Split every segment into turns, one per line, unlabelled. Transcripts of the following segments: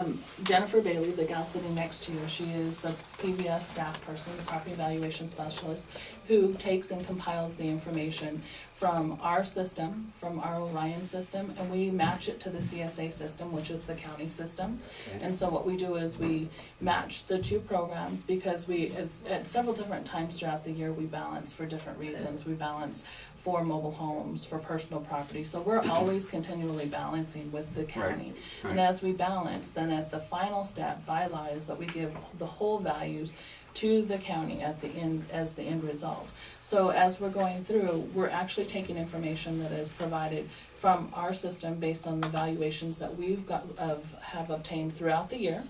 Um, Jennifer Bailey, the gal sitting next to you, she is the PBS staff person, the property evaluation specialist, who takes and compiles the information from our system, from our Orion system, and we match it to the CSA system, which is the county system. And so what we do is we match the two programs because we, at- at several different times throughout the year, we balance for different reasons. We balance for mobile homes, for personal property, so we're always continually balancing with the county. And
right.
as we balance, then at the final step, bylaw is that we give the whole values to the county at the end, as the end result. So as we're going through, we're actually taking information that is provided from our system based on the valuations that we've got, of, have obtained throughout the year,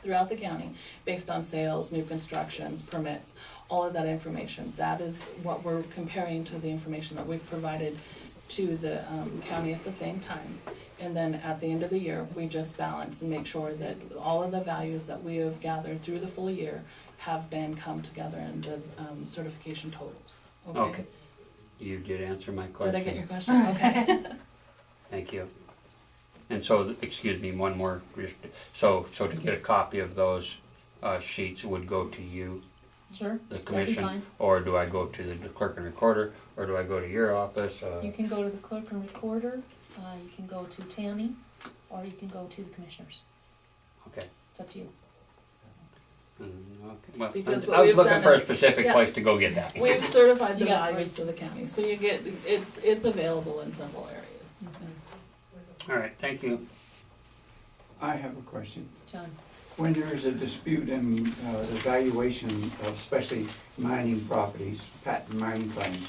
throughout the county, based on sales, new constructions, permits, all of that information. That is what we're comparing to the information that we've provided to the, um, county at the same time. And then at the end of the year, we just balance and make sure that all of the values that we have gathered through the full year have been come together in the um, certification totals.
Okay. You did answer my question.
Did I get your question? Okay.
Thank you. And so, excuse me, one more, so, so to get a copy of those uh, sheets would go to you,
Sure,
the
that'd be
commission?
fine.
Or do I go to the clerk and recorder, or do I go to your office? uh,
You can go to the clerk and recorder, uh, you can go to Tammy, or you can go to the commissioners.
Okay.
It's up to you.
Mm, okay. Well,
Because what
I was
we've
looking
done
for a
is-
specific
yeah.
place to go get that.
We've certified the
You got
values to the county, so you get, it's, it's available in several areas.
All right, thank you.
I have a question.
John,
When there is a dispute in uh, the valuation of especially mining properties, patent mining claims,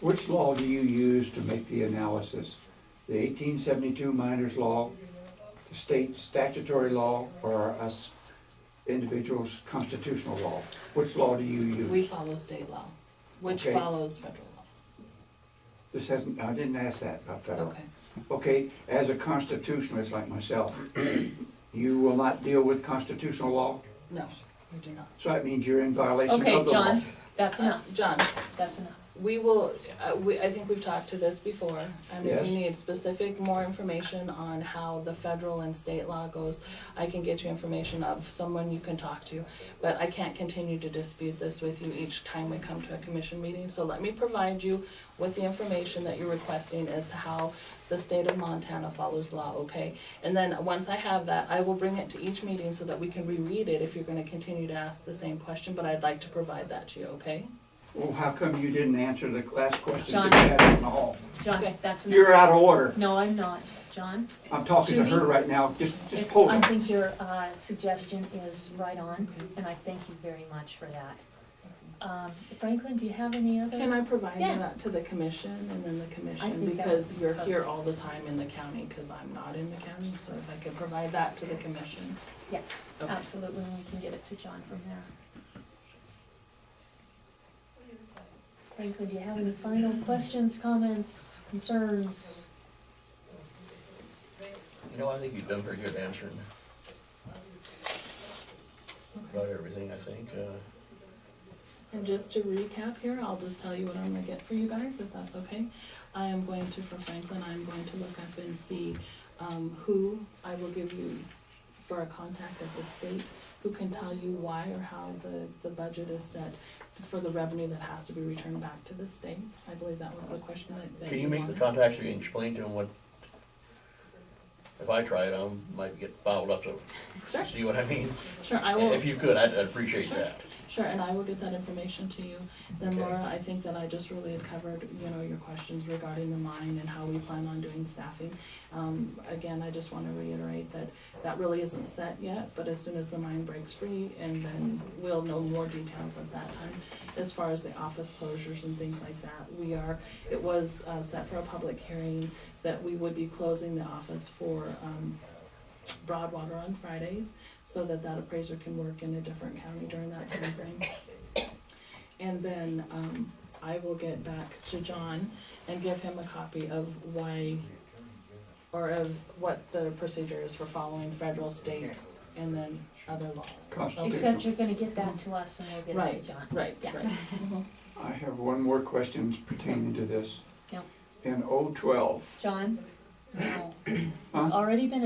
which law do you use to make the analysis? The eighteen seventy-two miners law, the state statutory law, or us individuals' constitutional law? Which law do you
We
use?
follow state law, which
Okay.
follows federal
This hasn't, I didn't ask that about
law.
federal.
Okay.
Okay, as a constitutionalist like myself, you will not deal with constitutional law?
No, we do not. Uh,
So that means you're in violation of the law.
okay, John, that's enough,
John,
that's enough.
we will, uh, we, I think we've talked to this before, and if you
Yes.
need specific more information on how the federal and state law goes, I can get you information of someone you can talk to, but I can't continue to dispute this with you each time we come to a commission meeting, so let me provide you with the information that you're requesting as to how the state of Montana follows law, okay? And then, once I have that, I will bring it to each meeting so that we can reread it if you're gonna continue to ask the same question, but I'd like to provide that to you, okay?
Well, how come you didn't answer the last question
John.
that you had in the hall?
John,
Okay.
that's enough.
You're out of order.
No, I'm not, John.
I'm talking to
Judy?
her right now. Just, just
if-
hold
I
it.
think your, uh, suggestion is right on, and I thank you very much for that. Um, Franklin, do you have any other?
Can I provide
Yeah.
that to the commission and then the commission,
think that
because
would be
you're here all the time in the county, cause I'm not in the county, so if I could provide that to the commission.
Yes,
Okay.
absolutely, and we can get it to John from there. Franklin, do you have any final questions, comments, concerns?
You know, I think you've done pretty good answering about everything, I think. Uh,
And just to recap here, I'll just tell you what I'm gonna get for you guys, if that's okay. I am going to, for Franklin, I'm going to look up and see, um, who I will give you for a contact at the state, who can tell you why or how the, the budget is set for the revenue that has to be returned back to the state. I believe that was the question that, that
Can you
you
make the
wanted.
contacts, you can explain to them what, if I try it, I might get fouled up, so,
Sure.
see what I mean?
Sure, I will,
If you could, I'd I'd appreciate
Sure.
that.
sure, and I will get that information to you. Then
Okay.
Laura, I think that I just really had covered, you know, your questions regarding the mine and how we plan on doing staffing. Um, again, I just wanna reiterate that that really isn't set yet, but as soon as the mine breaks free, and then we'll know more details at that time. As far as the office closures and things like that, we are, it was, uh, set for a public hearing that we would be closing the office for, um, Broadwater on Fridays, so that that appraiser can work in a different county during that timeframe. And then, um, I will get back to John and give him a copy of why, or of what the procedure is for following federal, state, and then other law.
Constitutional.
Except you're gonna get that to us and we'll get it
Right,
to John.
right,
Yes.
right. Mhm.
I have one more question pertaining to this.
Yep.
In O twelve,
John, No.
Huh?
Already been